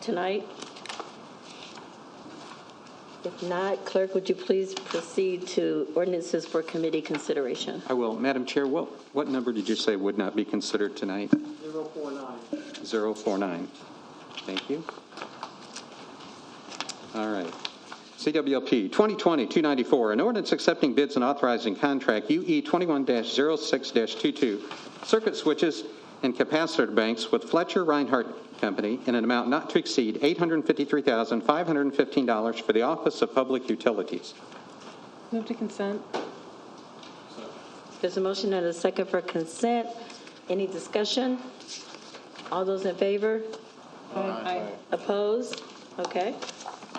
tonight? If not, clerk, would you please proceed to ordinances for committee consideration? I will. Madam Chair, what, what number did you say would not be considered tonight? 049. 049. Thank you. All right. CWLP 2020-294, an ordinance accepting bids and authorizing contract E UE 21-06-22, circuit switches and capacitor banks with Fletcher Reinhardt Company in an amount not to exceed $853,515 for the Office of Public Utilities. Move to consent. There's a motion and a second for consent. Any discussion? All those in favor? Aye. Opposed? Okay.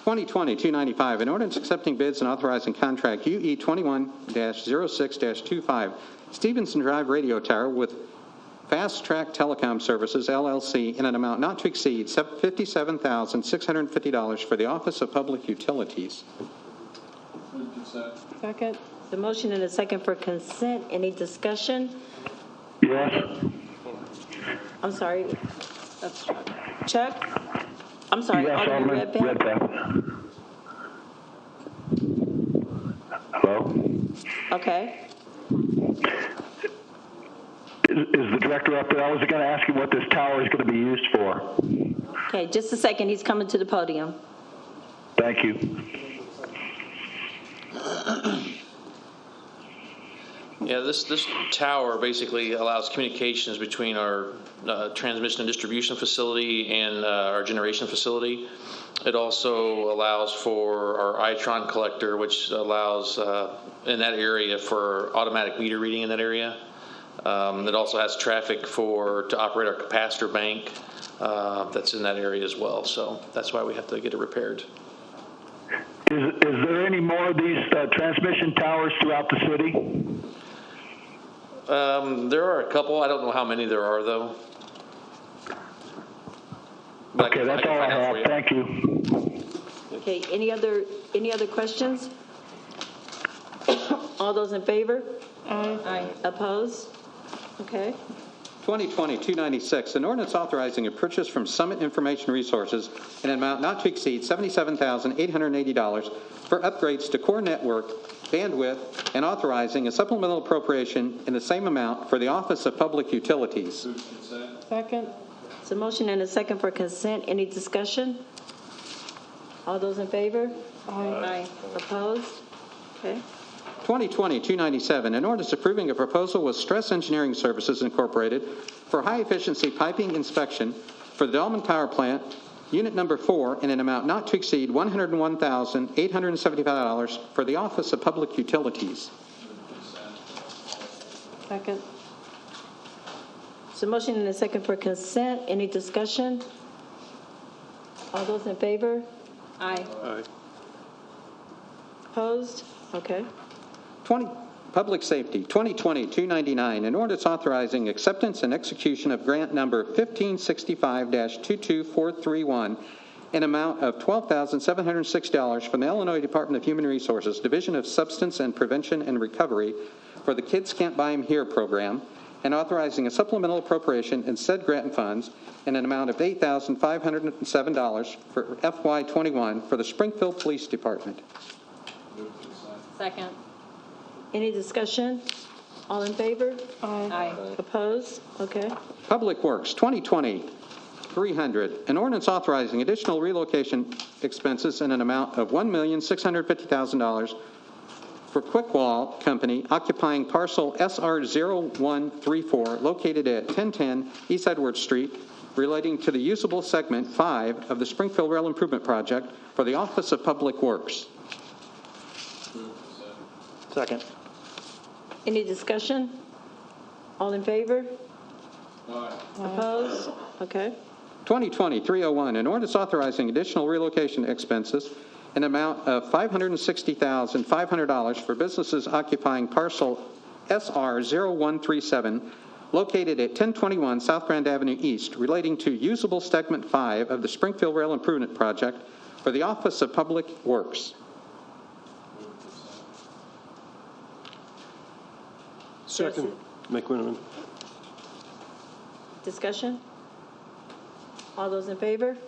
2020-295, an ordinance accepting bids and authorizing contract E UE 21-06-25 Stevenson Drive Radio Tower with Fast Track Telecom Services LLC in an amount not to exceed $57,650 for the Office of Public Utilities. Second. The motion and a second for consent. Any discussion? Yes. I'm sorry. That's Chuck. Chuck? I'm sorry, Yes, Alderman Alderman Redpath? Redpath. Hello? Okay. Is is the director up there? I was going to ask you what this tower is going to be used for. Okay, just a second. He's coming to the podium. Thank you. Yeah, this, this tower basically allows communications between our uh, transmission and distribution facility and uh, our generation facility. It also allows for our Itron collector, which allows uh, in that area for automatic meter reading in that area. Um, It also has traffic for, to operate our capacitor bank uh, that's in that area as well. So that's why we have to get it repaired. Is is there any more of these uh, transmission towers throughout the city? Um, there are a couple. I don't know how many there are, though. But I Okay, can- that's can all I find out for have. Thank you. you. Okay, any other, any other questions? All those in favor? Aye. Opposed? Okay. 2020-296, an ordinance authorizing a purchase from Summit Information Resources in an amount not to exceed $77,880 for upgrades to core network bandwidth and authorizing a supplemental appropriation in the same amount for the Office of Public Utilities. Second. So motion and a second for consent. Any discussion? All those in favor? Aye. Opposed? Okay. 2020-297, an ordinance approving a proposal with Stress Engineering Services Incorporated for high-efficiency piping inspection for the Dolman Power Plant, Unit Number 4, in an amount not to exceed $101,875 for the Office of Public Utilities. Second. So motion and a second for consent. Any discussion? All those in favor? Aye. Opposed? Okay. 20, Public Safety, 2020-299, an ordinance authorizing acceptance and execution of grant number 1565-22431 an amount of $12,706 from the Illinois Department of Human Resources, Division of Substance and Prevention and Recovery for the Kids Can't Buy 'Em Here program, and authorizing a supplemental appropriation in said grant funds in an amount of $8,507 for FY21 for the Springfield Police Department. Second. Any discussion? All in favor? Aye. Opposed? Okay. Public Works, 2020-300, an ordinance authorizing additional relocation expenses in an amount of $1,650,000 for Quick Wall Company occupying parcel SR0134 located at 1010 East Edwards Street relating to the usable segment 5 of the Springfield Rail Improvement Project for the Office of Public Works. Second. Any discussion? All in favor? Opposed? Okay. 2020-301, an ordinance authorizing additional relocation expenses in amount of $560,500 for businesses occupying parcel SR0137 located at 1021 South Grand Avenue East relating to usable segment 5 of the Springfield Rail Improvement Project for the Office of Public Works. Second. McMenamin. Discussion? All those in favor?